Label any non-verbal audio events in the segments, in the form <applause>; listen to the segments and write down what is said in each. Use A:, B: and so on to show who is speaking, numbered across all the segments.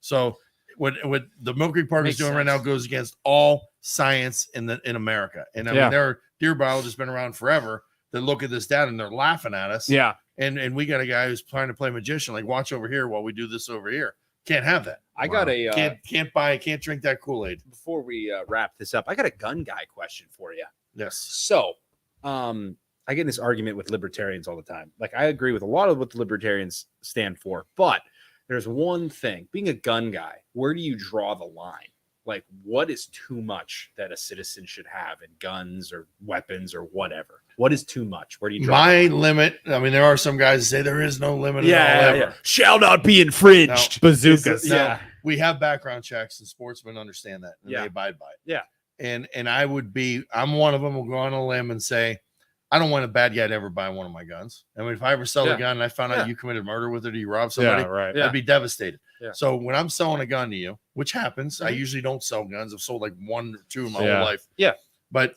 A: So what what the Mill Creek Park
B: Makes
A: is doing right now
B: sense.
A: goes against all science in the in America. And I
C: Yeah.
A: mean, there are deer biologists been around forever that look at this data and they're laughing at us.
C: Yeah.
A: And and we got a guy who's trying to play magician, like watch over here while we do this over here. Can't have that.
B: I got a uh,
A: Can't can't buy. Can't drink that Kool Aid.
B: before we uh, wrap this up. I got a gun guy question for you.
A: Yes.
B: So, um, I get in this argument with libertarians all the time. Like, I agree with a lot of what the libertarians stand for, but there's one thing being a gun guy, where do you draw the line? Like, what is too much that a citizen should have in guns or weapons or whatever? What is too much? Where do you draw? the
A: My
B: line?
A: limit. I mean, there are some guys that say there is no limit. at all
B: yeah, yeah,
A: ever.
B: yeah. shall not be infringed.
C: Bazookas.
A: No. we have background checks and sportsmen understand that and
B: Yeah.
A: they abide by it.
B: Yeah.
A: And and I would be I'm one of them will go on a limb and say, I don't want a bad guy to ever buy one of my guns. I mean, if I ever sell
B: Yeah.
A: a gun and I found
B: Yeah.
A: out you committed murder with it or you robbed somebody,
C: Yeah. Right.
B: Yeah.
A: I'd be devastated.
B: Yeah.
A: So when I'm selling a gun to you, which happens, I
B: Mhm.
A: usually don't sell guns. I've sold like one or two in my
C: Yeah.
A: whole life.
B: Yeah.
A: But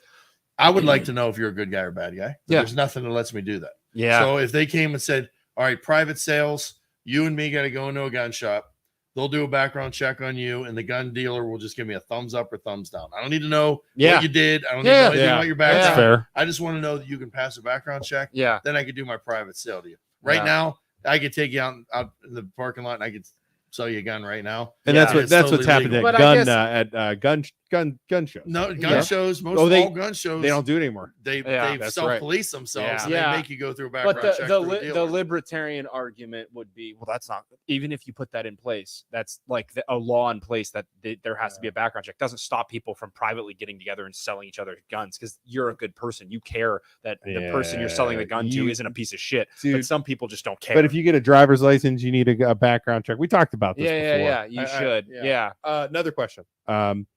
A: I would like to know if you're a good guy or a bad guy.
C: Yeah.
A: There's nothing that lets me do that.
C: Yeah.
A: So if they came and said, "All right, private sales, you and me got to go into a gun shop. They'll do a background check on you, and the gun dealer will just give me a thumbs up or thumbs down. I don't need to know
C: yeah.
A: what you did. I don't need to
C: Yeah.
A: know anything
C: Yeah.
A: about your
C: That's
A: background.
C: fair.
A: I just want to know that you can pass a background check.
C: Yeah.
A: Then I could do my private sale to you. Right
C: Yeah.
A: now, I could take you out, out in the parking lot and I could sell you a gun right now.
C: And
B: Yeah.
C: that's what
A: It's
C: that's
A: totally
C: what's happened
A: legal.
C: at
B: But I
C: gun
B: guess-
C: uh, at uh, gun sh- gun gun shows.
A: No gun
C: Yeah.
A: shows. Most
C: Oh, they-
A: all gun shows
C: They don't do it anymore.
A: They
C: Yeah,
A: they
C: that's
A: self police themselves
C: Yeah.
A: and
B: Yeah.
A: they make you go through a background
C: But the
A: check.
C: the,
A: through a
C: li- the
A: dealer.
C: libertarian argument would be, well, that's not even if you put that in place, that's like the, a law in place that th- there has to be a background check. Doesn't stop people from privately getting together and selling each other guns because you're a good person. You care that the person you're selling the Yeah,
B: gun
C: you-
B: to isn't a piece of shit.
C: Dude,
B: but some people just don't care.
C: But if you get a driver's license, you need a, g- a background check. We talked about this
B: yeah, yeah,
C: before.
B: yeah, you
C: I- I-
B: should.
C: yeah.
B: yeah.
C: Uh, another question. Um,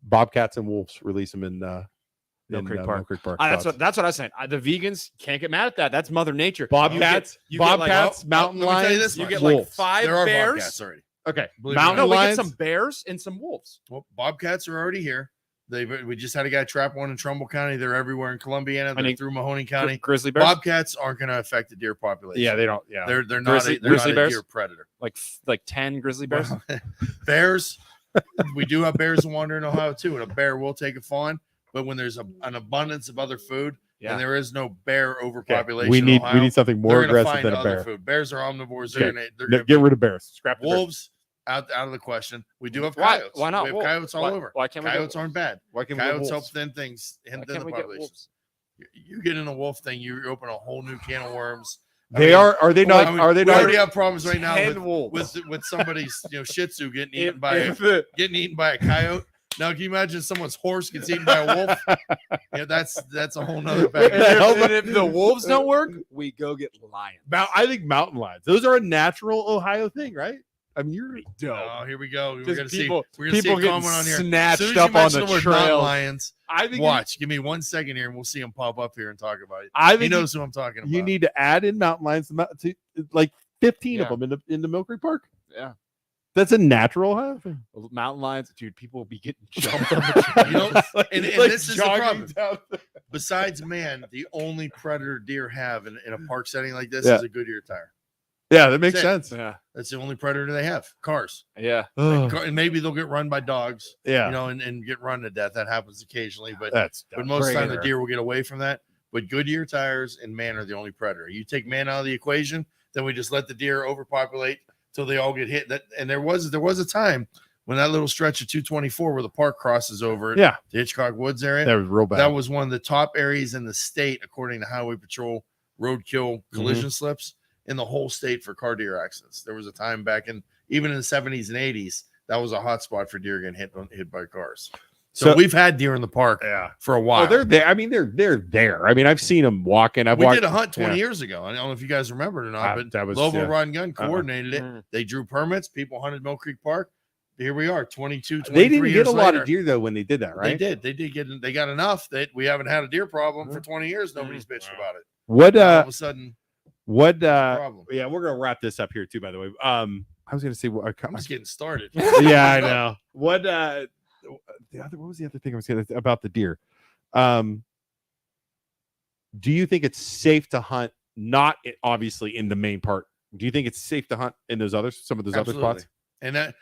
C: Bobcats and wolves release them in uh,
B: Mill
C: in,
B: Creek
C: uh,
B: Park.
C: Mill Creek Park.
B: I- that's
C: Thoughts?
B: what that's what I was saying. I, the vegans can't get mad at that. That's Mother Nature. You get-
C: Bobcats,
B: you get like- oh,
C: bobcats,
A: well,
C: mountain
A: let me tell you
C: lions,
A: this
B: You
A: much.
B: get like
C: wolves.
B: five
A: there are
B: bears.
A: bobcats already.
C: okay,
A: Believe it or
C: mountain
B: No, we get
C: lions.
B: some bears and some wolves.
A: Well, Bobcats are already here. They we just had a guy trap one in Trumbull County. They're everywhere in Columbiana. They're
C: mean,
A: through Mahoning
B: Gri-
A: County.
B: grizzly bears,
A: Bobcats aren't going to affect the deer population.
C: yeah, they don't. Yeah,
A: they're they're not
B: Grizzly-
A: a, they're
B: grizzly
A: not
B: bears?
A: a deer predator.
B: like f- like ten grizzly bears.
A: bears, we do have bears that wander in Ohio too, and a bear will take a fawn. But when there's a, an abundance of other food,
B: Yeah.
A: and there is no bear
C: Okay,
A: overpopulation,
C: We
A: in
C: need we
A: Ohio,
C: need something
A: they're
C: more
A: gonna
C: aggressive
A: find
C: than a
A: other
C: bear.
A: Food. Bears are omnivores. They're
C: Okay.
A: gonna, they're
C: No,
A: gonna-
C: get rid of bears. Scrap the bears.
A: wolves out out of the question. We do have
B: Why-
A: coyotes.
B: why not
A: We have
B: wolves?
A: coyotes all
B: why,
A: over.
B: Why can't we?
A: Coyotes
B: get,
A: aren't bad.
C: Why can't we?
A: Coyotes help
C: get wolves?
A: thin things
B: Why
A: and thin
B: can't
A: the
B: we get
A: population.
B: wolves?
A: You get in a wolf thing, you open a whole new can of worms. I
C: They
A: mean,
C: are. Are they
A: well,
C: not?
A: I mean,
C: are they
A: We
C: not?
A: already have problems right now
B: Ten
A: with,
B: wolves.
A: with with somebody's you know Shih Tzu getting
B: If-
A: eaten by a, <laughs>
B: if the-
A: getting eaten by a coyote. Now, can you imagine someone's horse gets eaten by a wolf? yeah, that's that's a whole
C: <laughs>
A: nother
B: and
A: bag.
C: How
B: if,
C: about-
B: and
A: <laughs>
B: if the wolves don't work, we go get lions.
C: Mount, I think mountain lions. Those are a natural Ohio thing, right? I mean, you're
A: Oh, here we go. We're
C: Just
A: gonna
C: people-
A: see. We're gonna see a
C: getting
A: comment on here. As
C: snatched
A: soon as you
C: up on
A: mention
C: the
A: word mountain
C: trail.
A: lions.
C: I think. You,
A: Watch. Give me one second here, and we'll see him pop up here and talk about it.
C: I
A: He
C: think you,
A: knows who I'm talking about.
C: you need to add in mountain lions to, mou- to like 15
B: Yeah.
C: of them in the in the Mill Creek Park.
B: Yeah.
C: that's a natural Ohio thing.
B: Mountain lions, dude. People will
A: <laughs>
B: be getting jumped on the trail.
A: You
C: <laughs>
A: know, and- and
C: Like
A: this is the
C: jogging
A: problem.
C: down the- <laughs>
A: besides man, the only predator deer have in, in a park setting like this
C: Yeah.
A: is a Goodyear tire.
C: Yeah, that makes
A: That's
B: <laughs>
C: sense.
B: Yeah,
A: That's the only predator they have. Cars.
B: yeah.
C: Ugh,
A: Car- and maybe they'll get run by dogs,
C: Oh. yeah,
A: you know, and, and get run to death. That happens occasionally, but
C: that's
A: but most of the time the
C: Predator.
A: deer will get away from that. But Goodyear tires and man are the only predator. You take man out of the equation, then we just let the deer overpopulate till they all get hit. That and there was there was a time when that little stretch of 224 where the park crosses over
C: Yeah,
A: the Hitchcock Woods area.
C: that was real bad.
A: That was one of the top areas in the state, according to Highway Patrol roadkill
C: Mm-hmm.
A: collision slips in the whole state for car deer accidents. There was a time back in even in the 70s and 80s that was a hot spot for deer getting hit hit by cars. So,
C: So-
A: we've had deer in the park
C: yeah.
A: for a
C: Oh,
A: while.
C: they're there. I mean, they're they're there. I mean, I've seen them walking. I've
A: we
C: walked.
A: did a hunt 20
C: yeah.
A: years ago. I don't know if you guys remember it or not,
C: Uh,
A: but
C: that was
A: Lobo
C: yeah.
A: Rod and Gun
C: Uh-uh.
A: coordinated it. They drew permits. People hunted Mill Creek Park. Here we are, 22, 23
C: They didn't
A: years
C: get a lot
A: later.
C: of deer though when they did that,
A: They
C: right?
A: did. They did get. They got enough that we haven't had a deer problem
C: Mm-hmm.
A: for 20 years. Nobody's bitched about it.
C: What
A: Now all
C: uh
A: of a sudden
C: what uh
A: problem.
C: yeah, we're gonna wrap this up here too, by the way. Um I was gonna say what
A: I'm just getting started.
C: <laughs> yeah,
A: <laughs>
C: I know. What
B: Hmm.
C: uh the other what was the other thing I was gonna about the deer? Um do you think it's safe to hunt not i- obviously in the main part? Do you think it's safe to hunt in those other some of those other spots?
A: And that